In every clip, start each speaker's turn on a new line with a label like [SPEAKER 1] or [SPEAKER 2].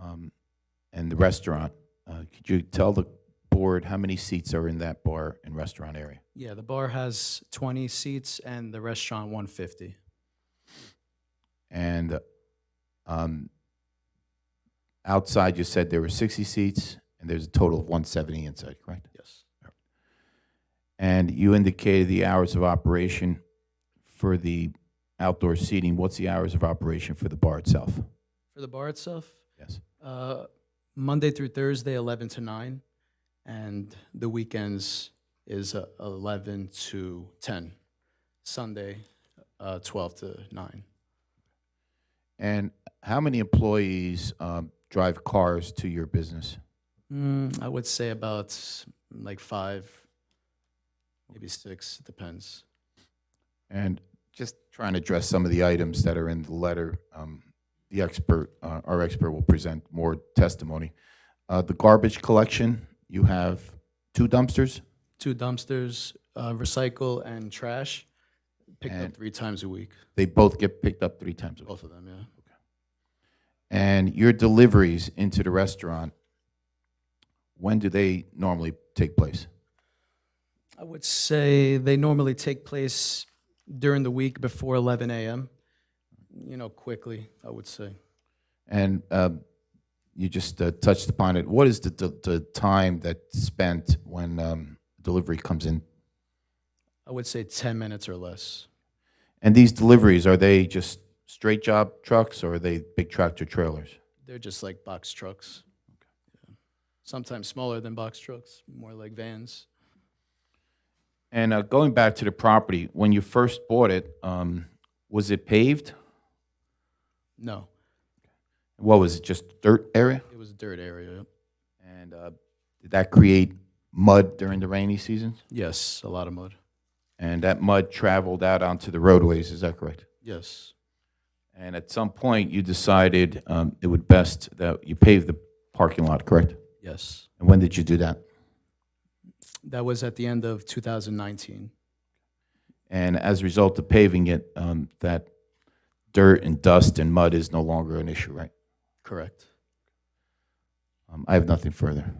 [SPEAKER 1] um, and the restaurant. Uh, Could you tell the board how many seats are in that bar and restaurant area?
[SPEAKER 2] Yeah, the bar has 20 seats and the restaurant 150.
[SPEAKER 1] And uh, um, outside, you said there were 60 seats, and there's a total of 170 inside, correct?
[SPEAKER 2] Yes.
[SPEAKER 1] And you indicated the hours of operation for the outdoor seating. What's the hours of operation for the bar itself?
[SPEAKER 2] For the bar itself,
[SPEAKER 1] Yes.
[SPEAKER 2] uh, Monday through Thursday, 11 to 9, and the weekends is uh, 11 to 10. Sunday, uh, 12 to 9.
[SPEAKER 1] And how many employees um, drive cars to your business?
[SPEAKER 2] Mm, I would say about s- like five, maybe six, it depends.
[SPEAKER 1] And just trying to address some of the items that are in the letter, um, the expert, uh, our expert will present more testimony. Uh, The garbage collection, you have two dumpsters,
[SPEAKER 2] Two dumpsters, uh, recycle and trash, picked
[SPEAKER 1] And-
[SPEAKER 2] up three times a week,
[SPEAKER 1] they both get picked up three times a week.
[SPEAKER 2] both of them, yeah.
[SPEAKER 1] And your deliveries into the restaurant, when do they normally take place?
[SPEAKER 2] I would say they normally take place during the week before 11 a.m. You know, quickly, I would say.
[SPEAKER 1] And um, you just uh, touched upon it. What is the, the, the time that's spent when um, delivery comes in?
[SPEAKER 2] I would say 10 minutes or less.
[SPEAKER 1] And these deliveries, are they just straight job trucks or are they big tractor trailers?
[SPEAKER 2] They're just like box trucks. Yeah. Sometimes smaller than box trucks, more like vans.
[SPEAKER 1] And uh, going back to the property, when you first bought it, um, was it paved?
[SPEAKER 2] No,
[SPEAKER 1] What was it, just dirt area?
[SPEAKER 2] it was a dirt area.
[SPEAKER 1] And uh, did that create mud during the rainy seasons?
[SPEAKER 2] Yes, a lot of mud.
[SPEAKER 1] And that mud traveled out onto the roadways, is that correct?
[SPEAKER 2] Yes,
[SPEAKER 1] And at some point, you decided um, it would best that you pave the parking lot, correct?
[SPEAKER 2] yes.
[SPEAKER 1] And when did you do that?
[SPEAKER 2] That was at the end of 2019.
[SPEAKER 1] And as a result of paving it, um, that dirt and dust and mud is no longer an issue, right?
[SPEAKER 2] Correct.
[SPEAKER 1] Um, I have nothing further.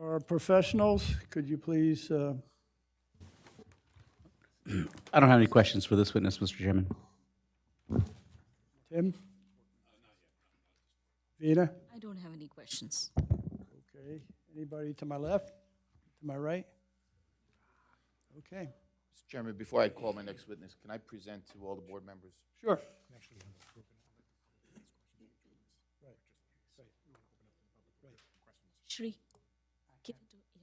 [SPEAKER 3] Our professionals, could you please, uh,
[SPEAKER 4] I don't have any questions for this witness, Mr. Chairman.
[SPEAKER 3] Tim? Vina?
[SPEAKER 5] I don't have any questions.
[SPEAKER 3] Okay. Anybody to my left? To my right? Okay,
[SPEAKER 1] Mr. Chairman, before I call my next witness, can I present to all the board members?
[SPEAKER 3] sure.
[SPEAKER 5] Shri, give it to, yeah.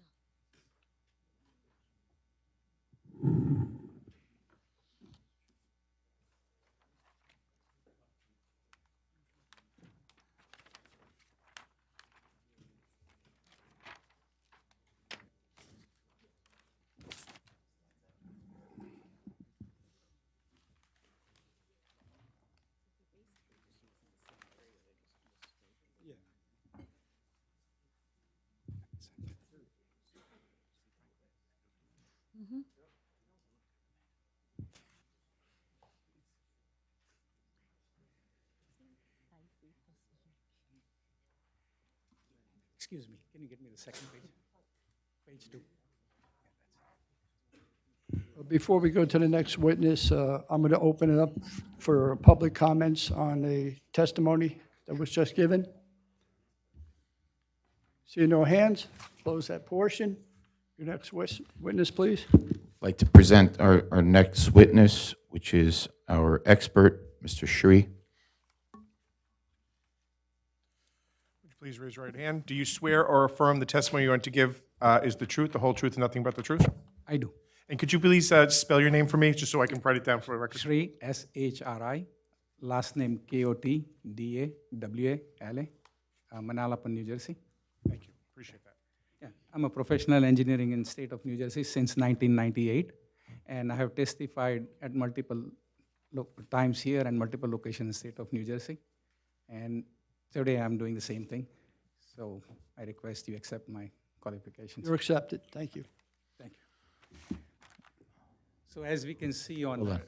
[SPEAKER 4] Excuse me, can you get me the second page? Page two.
[SPEAKER 3] Before we go to the next witness, uh, I'm going to open it up for public comments on the testimony that was just given. See no hands, close that portion. Your next wis- witness, please.
[SPEAKER 1] I'd like to present our, our next witness, which is our expert, Mr. Shree.
[SPEAKER 6] Please raise your right hand. Do you swear or affirm the testimony you're going to give uh, is the truth, the whole truth, and nothing but the truth?
[SPEAKER 4] I do.
[SPEAKER 6] And could you please uh, spell your name for me, just so I can write it down for the record?
[SPEAKER 4] Shri, S-H-R-I, last name K-O-T-D-A-W-A-L-A, uh, Manalapan, New Jersey.
[SPEAKER 6] Thank you, appreciate that.
[SPEAKER 4] Yeah, I'm a professional engineering in state of New Jersey since 1998, and I have testified at multiple lo- times here and multiple locations in state of New Jersey. And today I'm doing the same thing, so I request you accept my qualifications.
[SPEAKER 3] You're accepted. Thank you.
[SPEAKER 4] So as we can see on,